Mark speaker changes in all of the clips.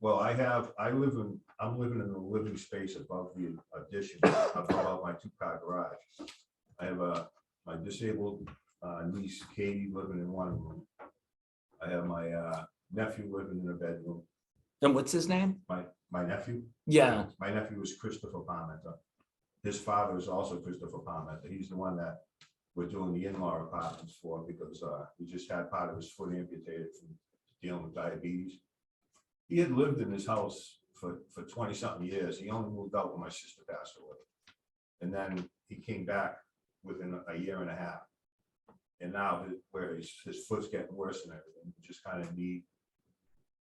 Speaker 1: Well, I have, I live in, I'm living in the living space above the addition, up above my two-car garage. I have a, my disabled uh, niece Katie living in one room. I have my uh, nephew living in a bedroom,
Speaker 2: And what's his name?
Speaker 1: my, my nephew.
Speaker 2: Yeah,
Speaker 1: My nephew is Christopher Palmenter. His father is also Christopher Palmenter. He's the one that we're doing the in-law apartments for because uh, he just had part of his foot amputated from dealing with diabetes. He had lived in his house for, for twenty-something years. He only moved out when my sister passed away. And then he came back within a year and a half. And now his- where his, his foot's getting worse and everything, he just kind of need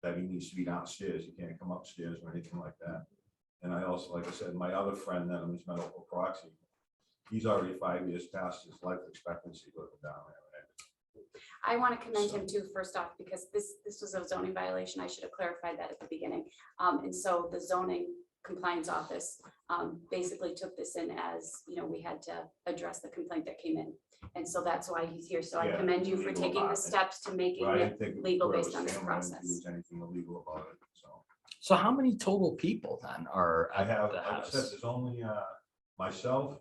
Speaker 1: that he needs to be downstairs. He can't come upstairs or anything like that. And I also, like I said, my other friend that was medical proxy, he's already five years past his life expectancy looking down there.
Speaker 3: I want to commend him too, first off, because this, this was a zoning violation. I should have clarified that at the beginning. Um, and so the zoning compliance office, um, basically took this in as, you know, we had to address the complaint that came in. And so that's why he's here. So I
Speaker 1: Yeah,
Speaker 3: commend you for
Speaker 1: legal
Speaker 3: taking the
Speaker 1: document.
Speaker 3: steps to making
Speaker 1: But I didn't
Speaker 3: it.
Speaker 1: think
Speaker 3: legal
Speaker 1: where it
Speaker 3: based on
Speaker 1: was
Speaker 3: this
Speaker 1: family, I didn't think
Speaker 3: process.
Speaker 1: there was Anything illegal about it, so.
Speaker 2: so how many total people then are
Speaker 1: I
Speaker 2: at
Speaker 1: have,
Speaker 2: the
Speaker 1: like I said,
Speaker 2: house?
Speaker 1: there's only uh, myself,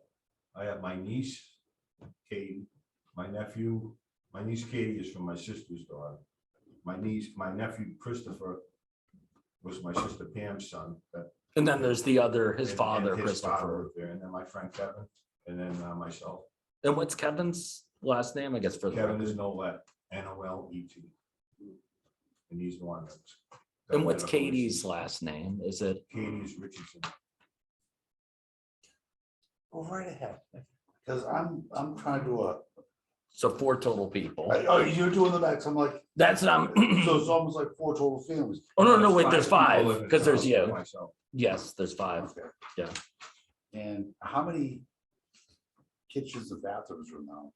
Speaker 1: I have my niece, Katie, my nephew, my niece Katie is from my sister's daughter. My niece, my nephew Christopher was my sister Pam's son that
Speaker 2: And then there's the other,
Speaker 1: and-
Speaker 2: his
Speaker 1: and
Speaker 2: father,
Speaker 1: his father
Speaker 2: Christopher.
Speaker 1: was There, and then my friend Kevin, and then uh, myself.
Speaker 2: And what's Kevin's last name? I guess for the
Speaker 1: Kevin
Speaker 2: record.
Speaker 1: is Nolet, N O L E T. And he's the one that's.
Speaker 2: And what's Katie's last name? Is it?
Speaker 1: Katie's Richardson.
Speaker 4: Go right ahead, because I'm, I'm trying to do a,
Speaker 2: So four total people.
Speaker 4: I- oh, you're doing the back, so I'm like,
Speaker 2: That's
Speaker 4: so
Speaker 2: not,
Speaker 4: it's almost like four total families.
Speaker 2: oh, no, no, wait, there's
Speaker 1: Five
Speaker 2: five,
Speaker 1: people live in
Speaker 2: because there's
Speaker 1: the house,
Speaker 2: you.
Speaker 1: myself.
Speaker 2: Yes, there's five.
Speaker 4: Okay.
Speaker 2: Yeah.
Speaker 4: And how many kitchens and bathrooms are now?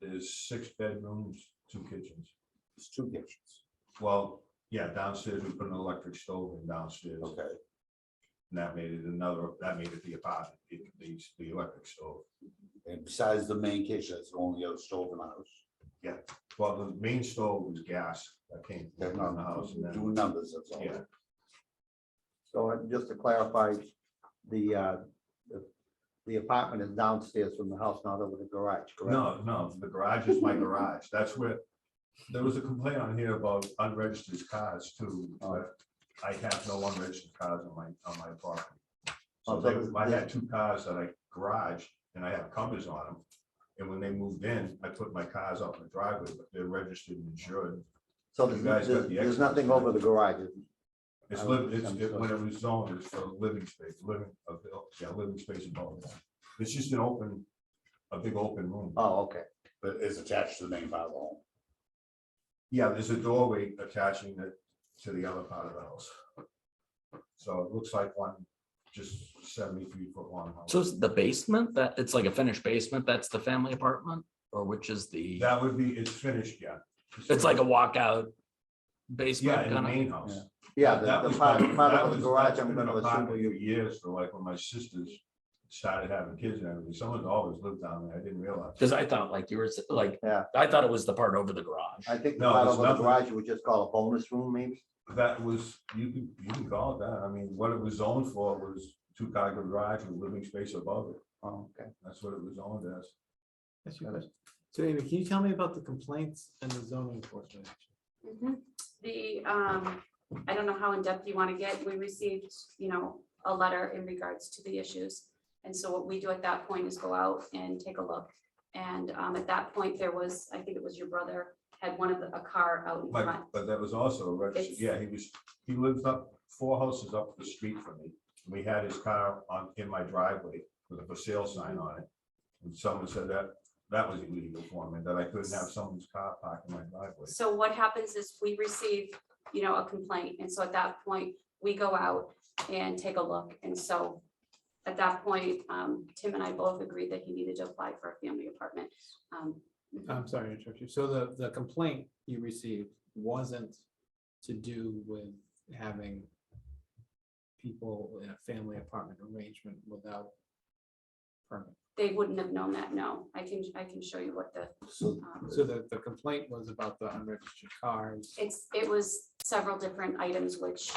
Speaker 1: There's six bedrooms, two kitchens.
Speaker 4: It's two kitchens,
Speaker 1: Well, yeah, downstairs, we put an electric stove in downstairs, and
Speaker 4: okay,
Speaker 1: that made it another, that made it the apartment, it- the, the electric stove.
Speaker 4: and besides the main kitchen, that's the only other stove in the house.
Speaker 1: Well, the main stove was gas that came
Speaker 4: Okay,
Speaker 1: from the house. and
Speaker 4: no,
Speaker 1: then-
Speaker 4: Doing numbers, that's all.
Speaker 1: Yeah.
Speaker 5: So uh, just to clarify, the, uh, the- the apartment is downstairs from the house, not over the garage, correct?
Speaker 1: No, no, the garage is my garage. That's where, there was a complaint on here about unregistered cars too, but I have no unregistered cars on my, on my property. So
Speaker 5: Oh, so
Speaker 1: they- I
Speaker 5: this-
Speaker 1: had two cars that I garage and I have covers on them. And when they moved in, I put my cars out in the driveway, but they're registered and insured.
Speaker 5: So
Speaker 1: You guys
Speaker 5: there's,
Speaker 1: got
Speaker 5: there's
Speaker 1: the
Speaker 5: there's
Speaker 1: extras,
Speaker 5: nothing
Speaker 1: right?
Speaker 5: over the garage.
Speaker 1: It's
Speaker 5: I
Speaker 1: live,
Speaker 5: would
Speaker 1: it's,
Speaker 5: think
Speaker 1: it-
Speaker 5: so.
Speaker 1: when it was zoned, it's for living space, living, of the- yeah, living space above. It's just an open, a big open room.
Speaker 5: Oh, okay.
Speaker 4: But it's attached to the main part of the home.
Speaker 1: Yeah, there's a doorway attaching it to the other part of the house. So it looks like one, just seventy-three foot long. house.
Speaker 2: So it's the basement that, it's like a finished basement. That's the family apartment or which is the,
Speaker 1: That would be, it's finished, yeah.
Speaker 2: it's like a walkout
Speaker 1: Yeah,
Speaker 2: basement
Speaker 1: in the
Speaker 2: kind of.
Speaker 1: main house.
Speaker 5: Yeah,
Speaker 1: That
Speaker 5: the, the
Speaker 1: was
Speaker 5: part,
Speaker 1: been-
Speaker 5: part
Speaker 1: that
Speaker 5: of
Speaker 1: was-
Speaker 5: the garage,
Speaker 1: that's
Speaker 5: I'm
Speaker 1: been
Speaker 5: gonna
Speaker 1: a part
Speaker 5: assume.
Speaker 1: of it Years, so like when my sisters started having kids and everything, someone's always lived down there, I didn't realize.
Speaker 2: Cause I thought like you were, s- like,
Speaker 5: Yeah.
Speaker 2: I thought it was the part over the garage.
Speaker 5: I think the
Speaker 1: No,
Speaker 5: part
Speaker 1: there's
Speaker 5: over the
Speaker 1: nothing.
Speaker 5: garage, you would just call a bonus room, maybe?
Speaker 1: That was, you can, you can call it that, I mean, what it was zoned for was two car garage with living space above it,
Speaker 5: Oh, okay.
Speaker 1: that's what it was zoned as.
Speaker 6: Ask you a question. So Amy, can you tell me about the complaints and the zoning enforcement? action?
Speaker 3: Mhm. The, um, I don't know how in-depth you want to get. We received, you know, a letter in regards to the issues. And so what we do at that point is go out and take a look. And, um, at that point, there was, I think it was your brother, had one of the, a car out in
Speaker 1: But,
Speaker 3: front.
Speaker 1: but that was also, registered.
Speaker 3: Oh, It's-
Speaker 1: yeah, he was, he lives up, four houses up the street from me. We had his car on, in my driveway with a for sale sign on it. And someone said that, that was illegal for me, that I couldn't have someone's car parked in my driveway.
Speaker 3: So what happens is we receive, you know, a complaint, and so at that point, we go out and take a look, and so. At that point, um, Tim and I both agreed that he needed to apply for a family apartment. Um,
Speaker 6: I'm sorry to interrupt you. So the, the complaint you received wasn't to do with having people in a family apartment arrangement without permit.
Speaker 3: They wouldn't have known that, no, I can, I can show you what the,
Speaker 4: So
Speaker 3: um,
Speaker 6: So the, the complaint was about the unregistered cars.
Speaker 3: it's, it was several different items which